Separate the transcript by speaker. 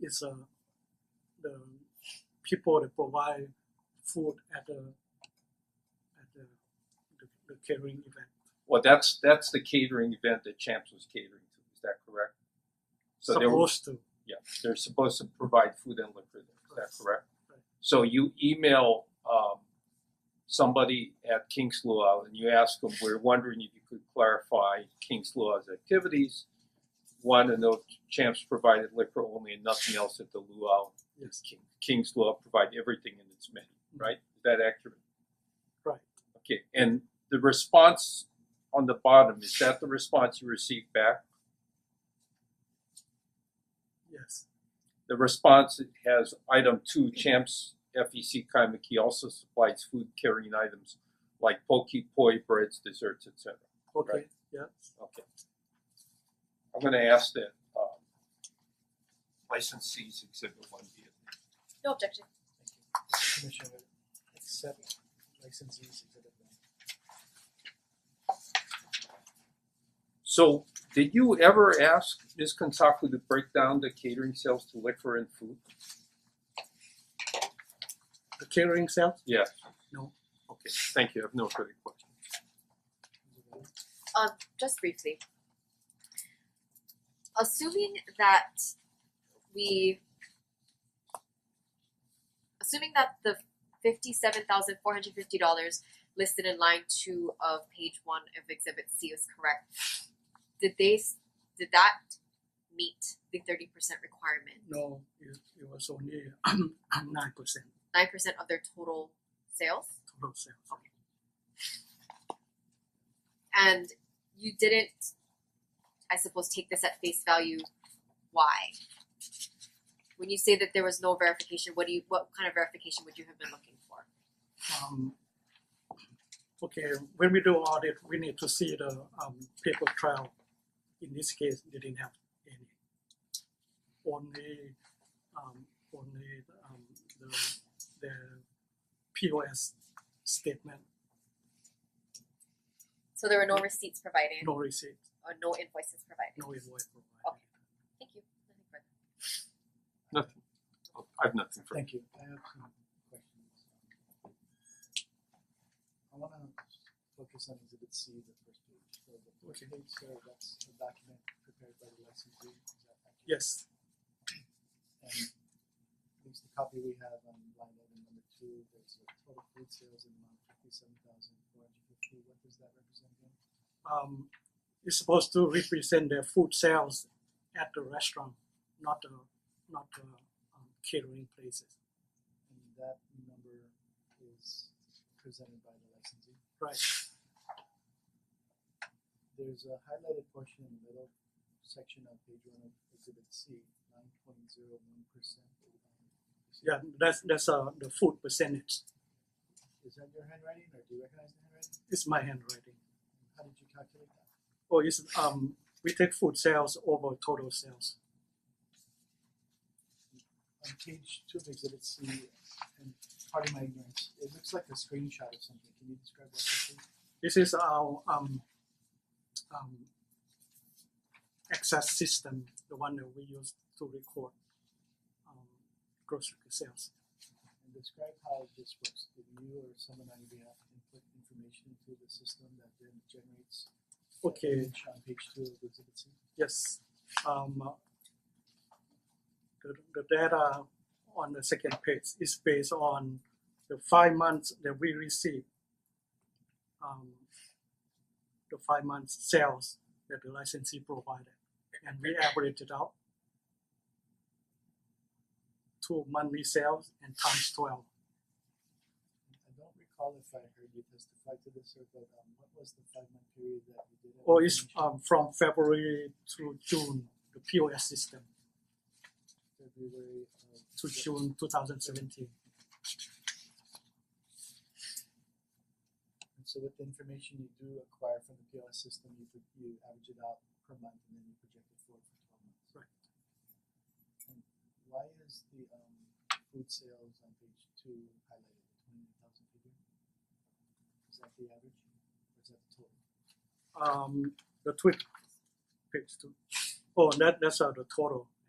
Speaker 1: is uh, the people that provide food at the at the, the, the catering event.
Speaker 2: Well, that's that's the catering event that Champs was catering to. Is that correct? So they were,
Speaker 1: Supposed to.
Speaker 2: yeah, they're supposed to provide food and liquor. There. Is
Speaker 1: Right.
Speaker 2: that correct?
Speaker 1: Right.
Speaker 2: So you email um, somebody at King's Luau and you ask them, "We're wondering if you could clarify King's Luau's activities." One, to know if Champs provided liquor only and nothing else at the Luau.
Speaker 1: Yes.
Speaker 2: King, King's Law provide everything in its menu, right? Is that accurate?
Speaker 1: Right.
Speaker 2: Okay, and the response on the bottom, is that the response you received back?
Speaker 1: Yes.
Speaker 2: The response has item two, Champs FEC Kaimaki also supplies food carrying items like poke, poi, breads, desserts, etc.
Speaker 1: Okay.
Speaker 2: Right.
Speaker 1: Yeah.
Speaker 2: Okay. I'm gonna ask that, um, licensees exhibit one be
Speaker 3: No objection.
Speaker 4: Commissioner, accept licensees exhibit one.
Speaker 2: So, did you ever ask Ms. Kansaku to break down the catering sales to liquor and food?
Speaker 1: The catering sales.
Speaker 2: Yes.
Speaker 1: No.
Speaker 2: Okay, thank you, I have no further questions.
Speaker 3: Um, just briefly. Assuming that we assuming that the fifty-seven thousand four hundred fifty dollars listed in line two of page one of exhibit C is correct, did they s- did that meet the thirty percent requirement?
Speaker 1: No, it, it was only nine percent
Speaker 3: Nine percent of their total sales?
Speaker 1: total sales.
Speaker 3: and you didn't i suppose take this at face value why when you say that there was no verification what do you what kind of verification would you have been looking for
Speaker 1: Um, okay, when we do audit, we need to see the um, paper trail. In this case, they didn't have any. Only, um, only um, the the POS statement,
Speaker 3: so there were no receipts provided
Speaker 1: no receipt,
Speaker 3: or no invoices provided
Speaker 1: no invoice provided.
Speaker 3: Okay. thank you Nothing further.
Speaker 2: Nothing, I have nothing for
Speaker 4: Thank you. I have some questions. I wanna focus on exhibit C, the first page, so the first page, so that's a document prepared by the licensee, is that accurate?
Speaker 1: Yes,
Speaker 4: And at least the copy we have on line item number two, there's a total food sales in the amount of fifty-seven thousand four hundred fifty, what does that represent again?
Speaker 1: um, it's supposed to represent the food sales at the restaurant, not the not the um, catering places.
Speaker 4: And that number is presented by the licensee.
Speaker 1: Right.
Speaker 4: There's a highlighted portion in the middle section of page one of exhibit C, nine point zero one percent.
Speaker 1: Yeah, that's that's uh, the food percentage.
Speaker 4: Is that your handwriting or do you recognize the handwriting?
Speaker 1: It's my handwriting.
Speaker 4: How did you calculate that?
Speaker 1: Oh, it's um we take food sales over total sales.
Speaker 4: On page two of exhibit C, and pardon my ignorance, it looks like a screenshot of something, can you describe what this is?
Speaker 1: This is our um um access system, the one that we use to record um grocery sales.
Speaker 4: And describe how this works, did you or someone on your behalf input information into the system that then generates the
Speaker 1: Okay.
Speaker 4: image on page two of exhibit C?
Speaker 1: Yes, um the the data on the second page is based on the five months that we receive. Um the five months sales that the licensee provided and we average it out. to monthly sales and times twelve.
Speaker 4: I don't recall if I heard you testify to this or but um what was the five month period that you did? have
Speaker 1: Or it's
Speaker 4: information?
Speaker 1: um from February through June, the POS system
Speaker 4: February of.
Speaker 1: to June two thousand seventeen.
Speaker 4: And so with the information you do acquire from the POS system, you pro- you average it out per month and then you project it forward for twelve months.
Speaker 1: Right.
Speaker 4: And why is the um food sales on page two highlighted, twenty nine thousand figure? Is that the average or is that the total?
Speaker 1: um the tweet page two. Oh, that that's uh, the total.